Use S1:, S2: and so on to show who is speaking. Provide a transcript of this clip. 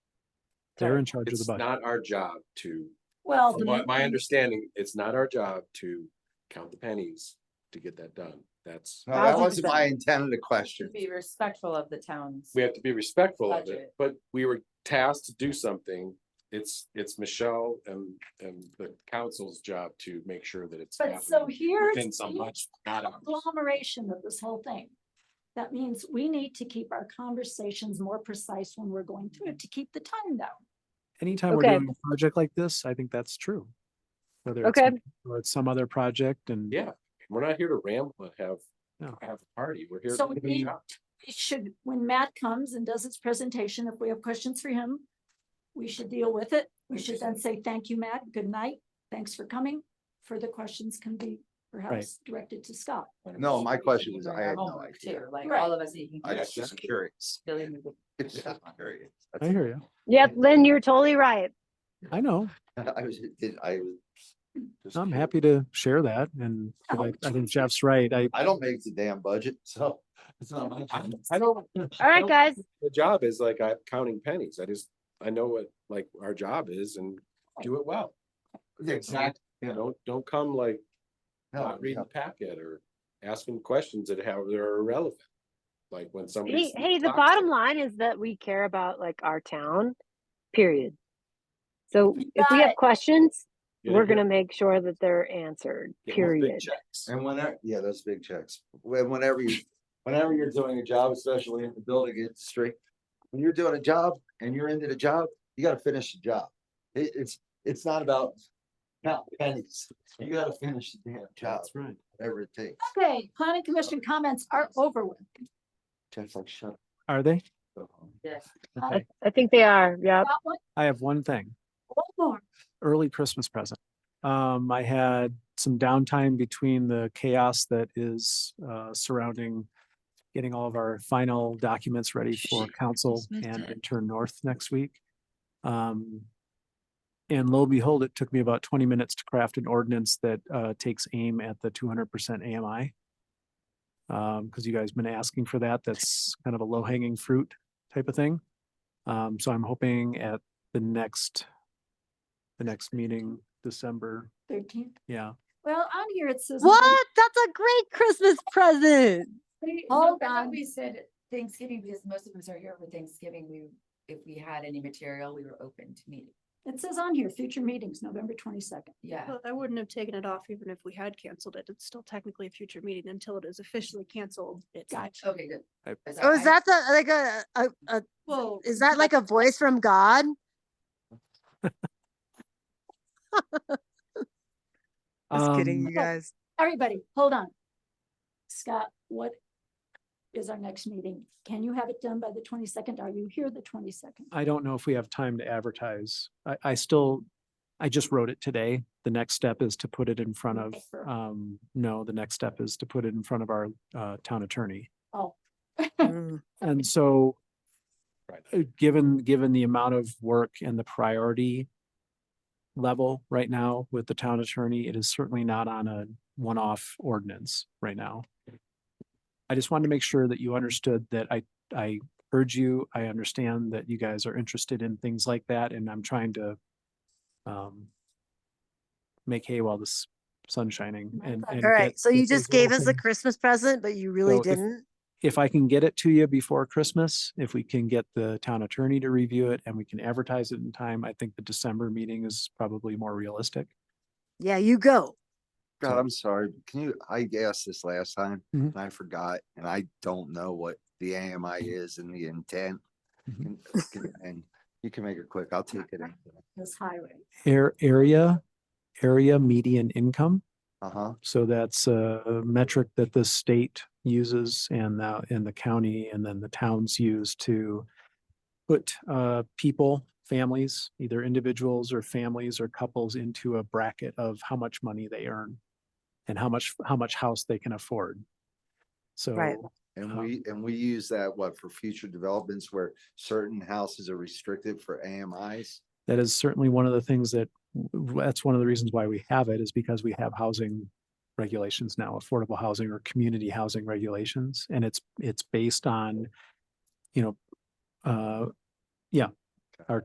S1: They're in
S2: Right.
S1: charge of the
S3: It's
S1: budget.
S3: not our job to,
S2: Well,
S3: from
S2: the
S3: my, my
S2: meeting-
S3: understanding, it's not our job to count the pennies to get that done. That's,
S4: No, that
S2: Thousand
S4: wasn't my
S2: percent.
S4: intended question.
S2: be respectful of the towns.
S3: we have to be respectful of it,
S2: Budget.
S3: but we were tasked to do something. It's, it's Michelle and, and the council's job to make sure that it's
S5: But so
S3: happening
S5: here's
S3: within so
S5: the
S3: much, not ours.
S5: agglomeration of this whole thing. That means we need to keep our conversations more precise when we're going through it to keep the time down.
S1: Anytime we're
S6: Okay.
S1: doing a project like this, I think that's true. Whether it's,
S6: Okay.
S1: me or it's some other project and.
S3: Yeah, we're not here to ramble and have,
S1: No.
S3: have a party. We're here.
S5: So
S3: to
S5: we
S3: do the
S5: need-
S3: job.
S5: We should, when Matt comes and does his presentation, if we have questions for him, we should deal with it. We should then say, thank you, Matt. Good night. Thanks for coming. Further questions can be perhaps directed to Scott.
S4: No, my question
S2: You
S4: was,
S2: bring
S4: I
S2: our
S4: had no
S2: homework
S4: idea.
S2: too, Like
S5: Right.
S2: all of us eating.
S4: I
S2: here.
S4: was just curious.
S2: Billy moved it.
S4: It's just curious.
S1: I hear you.
S6: Yep, Lynn, you're totally right.
S1: I know.
S4: I was, did- I was. just
S1: I'm
S4: curious.
S1: happy to share that. And 'cause
S6: Oh,
S1: I I think Jeff's right. I,
S4: I don't make the damn budget, so it's not my.
S3: I
S4: job.
S3: I don't.
S6: All right, guys.
S3: The job is like, I'm counting pennies. I just, I know what, like, our job is and do it well.
S4: Exact- yeah.
S3: Don't, don't come like
S4: No,
S3: not reading the packet or asking questions that have, that are irrelevant. Like when somebody.
S6: Hey, hey, the bottom line is that we care about like our town, period. So if we have questions, we're gonna make sure that they're answered, period.
S4: And whenever, yeah, those big checks. When, whenever you, whenever you're doing a job, especially in the building industry, when you're doing a job and you're into the job, you gotta finish the job. It, it's, it's not about count pennies. You gotta finish the damn job,
S3: right.
S4: whatever it takes.
S5: Okay, planning commission comments are over with.
S4: Jeff's like, shut
S1: are they?
S4: up.
S2: Yes.
S1: Okay.
S6: I think they are, yep.
S5: Got one,
S1: I have one thing,
S5: one more.
S1: early Christmas present. Um, I had some downtime between the chaos that is, uh, surrounding getting all of our final documents ready for council and intern north next week. Um, and lo and behold, it took me about twenty minutes to craft an ordinance that, uh, takes aim at the two hundred percent AMI. Um, because you guys been asking for that. That's kind of a low hanging fruit type of thing. Um, so I'm hoping at the next, the next meeting, December,
S5: Thirteenth.
S1: yeah.
S5: Well, on here it says.
S6: What? That's a great Christmas present.
S5: Hold
S2: Hold on,
S5: on.
S2: we said Thanksgiving, because most of us are here for Thanksgiving, we, if we had any material, we were open to meeting.
S5: It says on here, future meetings, November twenty-second.
S2: Yeah,
S7: Well, I wouldn't have taken it off even if we had canceled it. It's still technically a future meeting until it is officially canceled. It's not-
S5: Gotcha.
S2: okay, good.
S1: I-
S2: That's all
S6: Oh, is
S2: I-
S6: that the, like a, a, a,
S7: Well,
S6: is that like a voice from God? Just kidding,
S1: Um,
S6: you guys.
S5: Everybody, hold on. Scott, what is our next meeting? Can you have it done by the twenty-second? Are you here the twenty-second?
S1: I don't know if we have time to advertise. I, I still, I just wrote it today. The next step is to put it in front of,
S5: Paper.
S1: um, no, the next step is to put it in front of our, uh, town attorney.
S5: Oh,
S1: And so
S3: Right.
S1: uh, given, given the amount of work and the priority level right now with the town attorney, it is certainly not on a one-off ordinance right now. I just wanted to make sure that you understood that I, I urge you, I understand that you guys are interested in things like that and I'm trying to um make hay while the s- sun's shining
S5: My
S1: and.
S5: pleasure.
S1: and
S6: Oh All right,
S1: get-
S6: so you
S1: get those
S6: just gave
S1: little
S6: us a
S1: things-
S6: Christmas present, but you really
S1: So if-
S6: didn't?
S1: if I can get it to you before Christmas, if we can get the town attorney to review it and we can advertise it in time, I think the December meeting is probably more realistic.
S6: Yeah, you go.
S4: God, I'm sorry. but Can you, I asked this last time
S1: Mhm.
S4: and I forgot, and I don't know what the AMI is and the intent.
S1: Mhm.
S4: And- can- And you can make it quick. I'll take it.
S5: this highway.
S1: Air, area, area median income.
S4: Uh huh.
S1: So that's a metric that the state uses and the, and the county and then the towns use to put uh, people, families, either individuals or families or couples into a bracket of how much money they earn and how much, how much house they can afford.
S6: Right.
S1: So
S4: And
S1: Uh-huh.
S4: we, and we use that, what, for future developments where certain houses are restricted for AMIs?
S1: that is certainly one of the things that, w- that's one of the reasons why we have it is because we have housing regulations now, affordable housing or community housing regulations, and it's, it's based on, you know, uh, yeah,